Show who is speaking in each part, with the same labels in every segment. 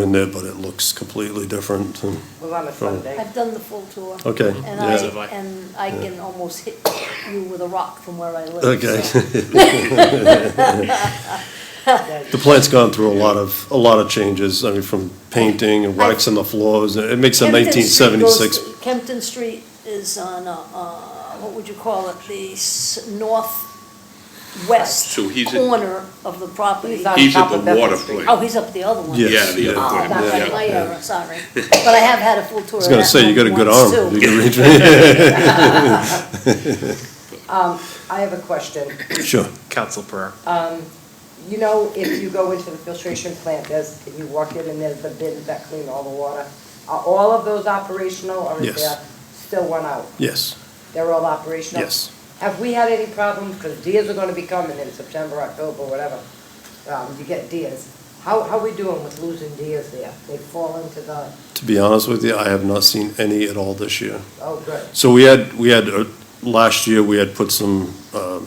Speaker 1: in there, but it looks completely different. and-
Speaker 2: Well, on a Sunday,
Speaker 3: I've done the full tour.
Speaker 1: Okay,
Speaker 3: And
Speaker 1: yeah.
Speaker 3: I,
Speaker 1: As have
Speaker 4: I.
Speaker 3: and I can almost hit you with a rock from where I live.
Speaker 1: Okay.
Speaker 3: so.
Speaker 2: yeah,
Speaker 1: The plant's gone through a lot of, a lot of changes, I mean, from painting and wax on the floors, it makes a
Speaker 3: Kempton
Speaker 1: nineteen
Speaker 3: Street goes
Speaker 1: seventy-six.
Speaker 3: to- Kempton Street is on, uh, uh, what would you call it, the s- northwest
Speaker 4: So he's at-
Speaker 3: corner of the property.
Speaker 2: He's on-
Speaker 4: He's at
Speaker 2: top of
Speaker 4: the
Speaker 2: Bedford
Speaker 4: water
Speaker 2: Street.
Speaker 3: Oh,
Speaker 4: plant.
Speaker 3: he's up the other one.
Speaker 1: Yes.
Speaker 4: Yeah, the
Speaker 1: yeah.
Speaker 4: other
Speaker 3: Oh,
Speaker 4: one,
Speaker 3: back on
Speaker 4: yeah.
Speaker 3: my era, sorry. But I have had a full tour
Speaker 1: I was
Speaker 3: of
Speaker 1: gonna
Speaker 3: that
Speaker 1: say, you got a good
Speaker 3: once,
Speaker 1: arm. You
Speaker 3: too.
Speaker 1: can reach-
Speaker 2: I have a question.
Speaker 1: Sure,
Speaker 4: Council Pereira.
Speaker 2: You know, if you go into the filtration plant, there's, you walk in and there's the bins that clean all the water. Are all of those operational or is
Speaker 1: Yes.
Speaker 2: there still one out?
Speaker 1: yes,
Speaker 2: They're all operational?
Speaker 1: yes.
Speaker 2: Have we had any problems, because deers are gonna be coming in September, October, whatever, um, you get deers. How, how we doing with losing deers there? They fall into the,
Speaker 1: To be honest with you, I have not seen any at all this year.
Speaker 2: oh, good,
Speaker 1: So we had, we had, uh, last year, we had put some, um,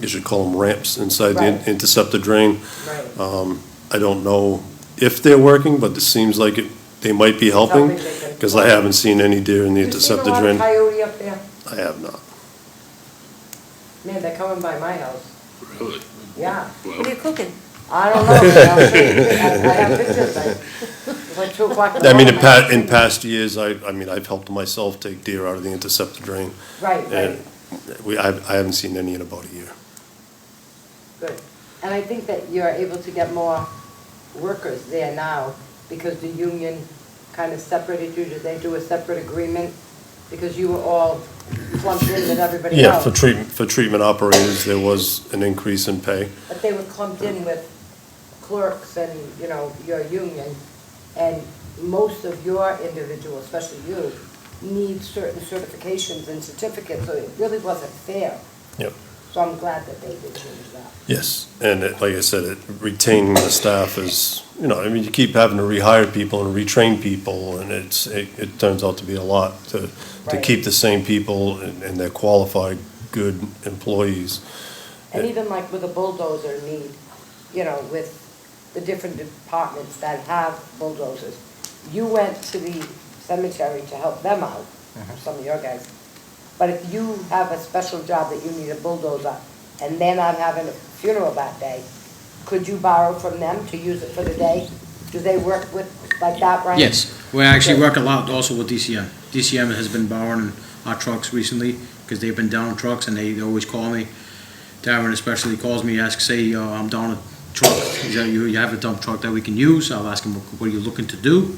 Speaker 1: you should call them ramps inside the in-
Speaker 2: Right.
Speaker 1: interceptor drain.
Speaker 2: right.
Speaker 1: I don't know if they're working, but it seems like it, they might be helping,
Speaker 2: Something they can-
Speaker 1: because I haven't seen any deer in the
Speaker 2: You seen a
Speaker 1: interceptor
Speaker 2: lot of
Speaker 1: drain. I
Speaker 2: coyote up there?
Speaker 1: have not.
Speaker 2: Man, they're coming by my house,
Speaker 4: Really?
Speaker 2: yeah.
Speaker 3: What are you cooking?
Speaker 2: I don't know, I'll show you, I I have pictures, I, it's like two o'clock in the
Speaker 1: I mean, in
Speaker 2: morning.
Speaker 1: pa, in past years, I, I mean, I've helped myself take deer out of the interceptor drain,
Speaker 2: Right, right,
Speaker 1: and we, I, I haven't seen any in about a year.
Speaker 2: good. And I think that you're able to get more workers there now because the union kind of separated you, did they do a separate agreement? Because you were all lumped in with everybody
Speaker 1: Yeah, for
Speaker 2: else,
Speaker 1: treatment, for treatment operators, there was an increase in pay.
Speaker 2: but they were clumped in with clerks and, you know, your union. And most of your individual, especially you, need certain certifications and certificates, so it really wasn't fair.
Speaker 1: Yep.
Speaker 2: So I'm glad that they did change that.
Speaker 1: Yes, and it, like I said, it, retaining the staff is, you know, I mean, you keep having to rehire people and retrain people, and it's, it, it turns out to be a lot to, to
Speaker 2: Right.
Speaker 1: keep the same people and, and they're qualified, good employees.
Speaker 2: And even like with a bulldozer need, you know, with the different departments that have bulldozers. You went to the cemetery to help them out,
Speaker 5: Mm-hmm.
Speaker 2: some of your guys. But if you have a special job that you need a bulldozer and they're not having a funeral that day, could you borrow from them to use it for the day? Do they work with, like that, Brian?
Speaker 5: Yes, we actually work a lot also with DCM. DCM has been borrowing our trucks recently, because they've been down trucks, and they they always call me. Darren especially calls me, asks, say, uh, I'm down a truck, Is that you, you have a dump truck that we can use, I'll ask him, what are you looking to do?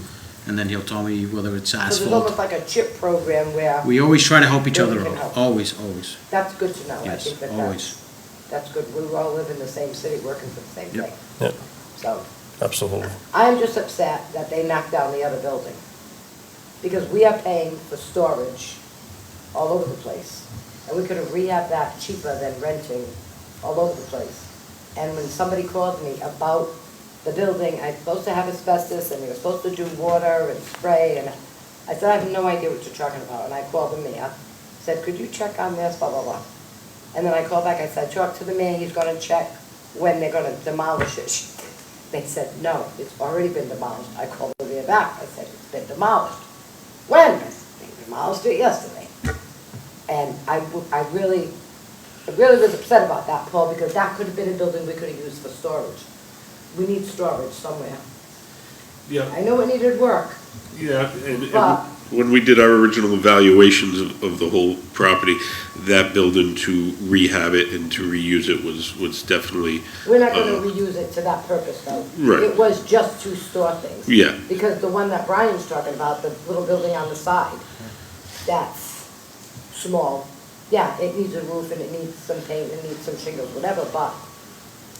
Speaker 5: And then he'll tell me whether it's
Speaker 2: So there's almost
Speaker 5: asphalt.
Speaker 2: like a chip program where,
Speaker 5: We always try to help each
Speaker 2: Where we
Speaker 5: other
Speaker 2: can
Speaker 5: out,
Speaker 2: help.
Speaker 5: always, always,
Speaker 2: that's good to know. I
Speaker 5: yes,
Speaker 2: think that that's-
Speaker 5: always.
Speaker 2: That's good. We all live in the same city, working for the same
Speaker 5: Yep.
Speaker 2: thing.
Speaker 1: Yep.
Speaker 2: So.
Speaker 1: Absolutely.
Speaker 2: I'm just upset that they knocked down the other building, because we are paying for storage all over the place. And we could have rehabbed that cheaper than renting all over the place. And when somebody called me about the building, I'm supposed to have asbestos, and they were supposed to do water and spray, and I said, I have no idea what you're talking about, and I called the mayor, said, could you check on this, blah, blah, blah. And then I called back, I said, talk to the mayor, he's gonna check when they're gonna demolish it. They said, no, it's already been demolished. I called the mayor back, I said, it's been demolished. When? I said, They demolished it yesterday. And I, w- I really, I really was upset about that, Paul, because that could have been a building we could have used for storage. We need storage somewhere.
Speaker 6: Yeah,
Speaker 2: I know it needed work,
Speaker 6: yeah, and,
Speaker 2: but,
Speaker 6: and
Speaker 4: When we did our original evaluations of, of the whole property, that building to rehab it and to reuse it was, was definitely,
Speaker 2: We're not gonna
Speaker 4: Uh,
Speaker 2: reuse it to that purpose, though.
Speaker 4: Right.
Speaker 2: It was just to store things.
Speaker 4: Yeah.
Speaker 2: Because the one that Brian's talking about, the little building on the side, that's small. Yeah, it needs a roof and it needs some paint, it needs some shingles, whatever, but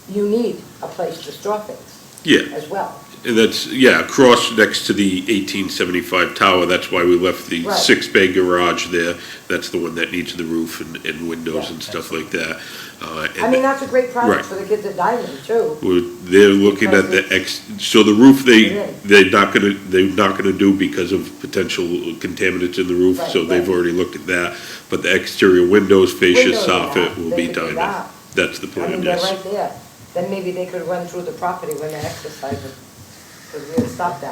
Speaker 2: you need a place to store things
Speaker 4: yeah.
Speaker 2: as well.
Speaker 4: And that's, yeah, across next to the eighteen seventy-five tower, that's why we left the
Speaker 2: Right.
Speaker 4: six-bay garage there. That's the one that needs the roof and, and windows
Speaker 2: Yeah.
Speaker 4: and stuff like that. Uh,
Speaker 2: I
Speaker 4: and
Speaker 2: mean, that's a great project
Speaker 4: Right.
Speaker 2: for the kids at Diamond, too.
Speaker 4: Well, they're looking at the ex, so the roof
Speaker 2: Yeah.
Speaker 4: they, they're not gonna, they're not gonna do because of potential contaminants in the roof,
Speaker 2: Right,
Speaker 4: so they've
Speaker 2: right.
Speaker 4: already looked at that. But the exterior windows, fascia,
Speaker 2: Windows, yeah,
Speaker 4: soffit will
Speaker 2: they
Speaker 4: be
Speaker 2: could do
Speaker 4: done.
Speaker 2: that.
Speaker 4: That's the
Speaker 2: I mean,
Speaker 4: plan,
Speaker 2: they're
Speaker 4: yes.
Speaker 2: right there. Then maybe they could run through the property when they're exercising, because we had stopped that.